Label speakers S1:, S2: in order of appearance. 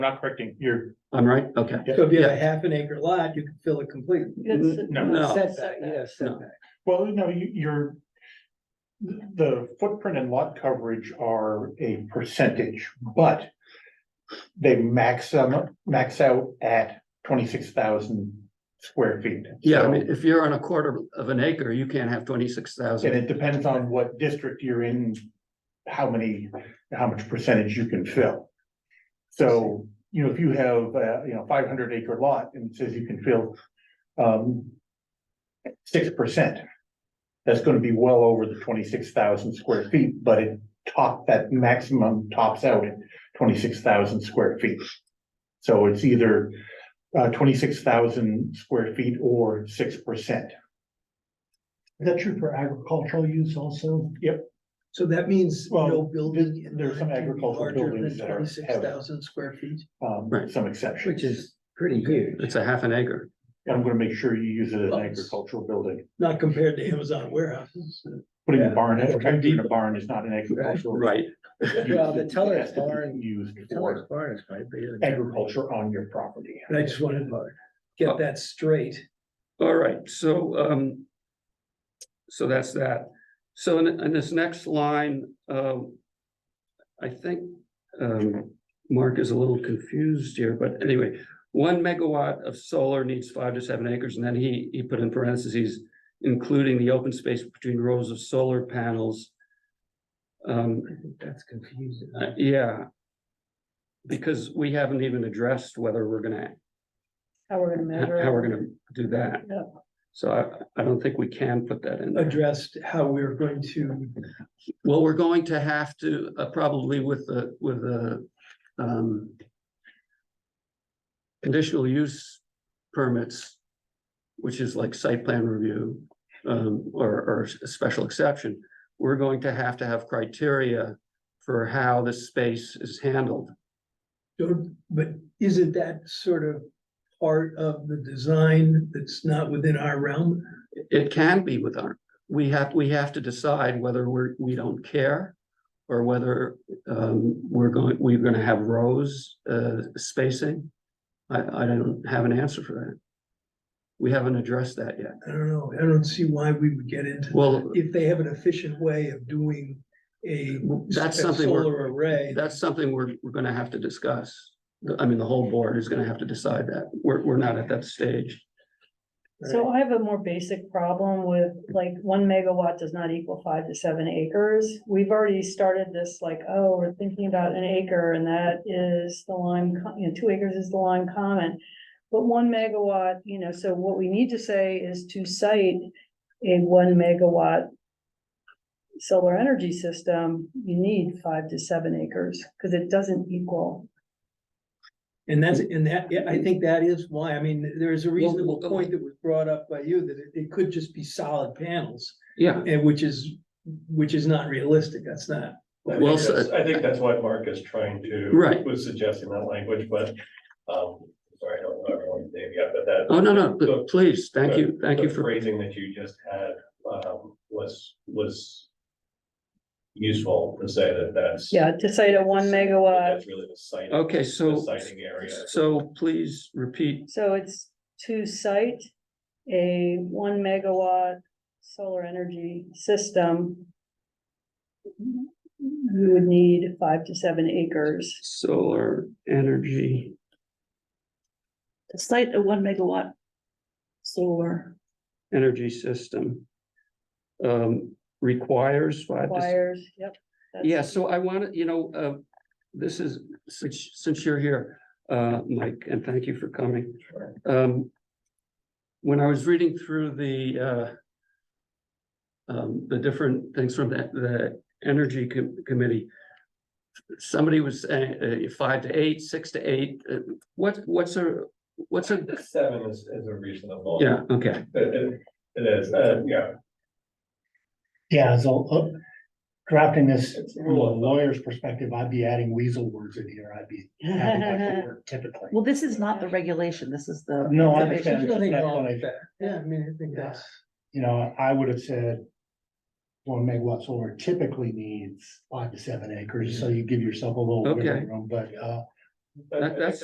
S1: not correcting, you're,
S2: I'm right, okay.
S3: So if you have a half an acre lot, you can fill it completely.
S2: N-
S1: no,
S2: No.
S4: Setback, yeah, setback.
S1: well, no, you, you're. The footprint and lot coverage are a percentage, but. They max, um, max out at twenty-six thousand square feet.
S2: Yeah, I
S1: So-
S2: mean, if you're on a quarter of an acre, you can't have twenty-six
S1: And
S2: thousand.
S1: it depends on what district you're in, how many, how much percentage you can fill. So, you know, if you have, uh, you know, five hundred acre lot and it says you can fill, um, six percent. That's gonna be well over the twenty-six thousand square feet, but it top, that maximum tops out at twenty-six thousand square feet. So it's either, uh, twenty-six thousand square feet or six percent.
S5: Is that true for agricultural use also?
S3: So that means
S1: Well,
S3: no building. in
S1: there's some
S3: line can be
S1: agricultural
S3: larger than
S1: buildings that are- have-
S3: 26,000 square feet.
S1: um,
S2: Right.
S1: some exceptions.
S4: which is pretty huge.
S2: It's a half an acre.
S1: I'm gonna make sure you use it as an
S3: Lots.
S1: agricultural building.
S3: Not compared to Amazon warehouses.
S1: Putting a
S4: Yeah.
S1: barn, in a barn is not an agricultural.
S2: Right.
S1: use.
S4: Well, the
S1: It
S4: teller
S1: has to be
S4: barn-
S1: Used
S4: Taller
S1: for
S4: barn is quite big.
S1: agriculture on your property.
S3: And I just wanted to get that straight.
S2: All right, so, um. So that's that. So in, in this next line, um. I think, um, Mark is a little confused here, but anyway, one megawatt of solar needs five to seven acres, and then he, he put in parentheses. Including the open space between rows of solar panels. Um,
S4: I think That's confusing.
S2: Uh, yeah. Because we haven't even addressed whether we're gonna,
S6: How we're gonna
S2: how
S6: measure. it.
S2: we're gonna do that.
S6: Yeah.
S2: So I, I don't think we can put that in. there.
S3: Addressed how we're going to,
S2: Well, we're going to have to, uh, probably with the, with the, um. Conditional use permits. Which is like site plan review, um, or, or a special exception. We're going to have to have criteria for how this space is handled.
S3: don't- but isn't that sort of part of the design that's not within our realm?
S2: It can be with our, we have, we have to decide whether we're, we don't care. Or whether um we're going, we're gonna have rows uh spacing. I I don't have an answer for that. We haven't addressed that yet.
S3: I don't know. I don't see why we would get into,
S2: Well,
S3: if they have an efficient way of doing a
S2: that's something we're,
S3: Solar array.
S2: that's something we're we're gonna have to discuss. The- I mean, the whole board is gonna have to decide that. We're we're not at that stage.
S6: So I have a more basic problem with like one megawatt does not equal five to seven acres. We've already started this like, oh, we're thinking about an acre and that is the Lime, Co- you know, two acres is the Lime Common. But one megawatt, you know, so what we need to say is to cite a one megawatt solar energy system, you need five to seven acres because it doesn't equal.
S3: And that's, and that, yeah, I think that is why, I mean, there's a reasonable
S2: well,
S3: point that was brought up by you, that it, it could just be solid panels,
S2: Yeah,
S3: and which is, which is not realistic, that's not.
S7: I
S2: Well
S7: think that's,
S2: said.
S7: I think that's what Mark is trying to.
S2: Right.
S7: Was suggesting that language, but, um, sorry, I don't know everyone's name yet, but that.
S2: oh, no, no,
S7: the-
S2: but please, thank you, thank you
S7: the
S2: for,
S7: Phrasing that you just had, um, was, was. Useful to say that that's.
S6: Yeah, to cite a one megawatt
S7: That's really the site.
S2: okay,
S7: The
S2: so
S7: siting area.
S2: so please repeat
S6: So it's to cite a one megawatt solar energy system. You would need five to seven acres.
S2: solar energy.
S8: to cite a one megawatt solar,
S2: energy system. Um, requires five, to s-
S6: Requires, yep. that's-
S2: yeah, so I wanna, you know, uh, this is, since, since you're here, uh, Mike, and thank you for coming. Um, when I was reading through the, uh. Um, the different things from the, the energy Com- committee. Somebody was saying, uh, five to eight, six to eight, uh, what, what's a, what's a,
S7: Seven is, is a reasonable.
S2: yeah, okay,
S7: It- it- it is, uh, yeah,
S5: Yeah, so uh, drafting this
S7: It's
S5: from a
S7: rule of thumb.
S5: lawyer's perspective, I'd be adding weasel words in here. I'd be adding that word typically.
S8: well, this is not the regulation, this is the.
S5: No, I
S8: definition.
S5: understand.
S3: There's nothing wrong with
S5: That's what
S3: that. Yeah, I mean, I think that's,
S5: You know, I would have said one megawatt solar typically needs five to seven acres, so you give yourself a little
S2: Okay.
S5: wiggle room, but uh,
S2: That- that's-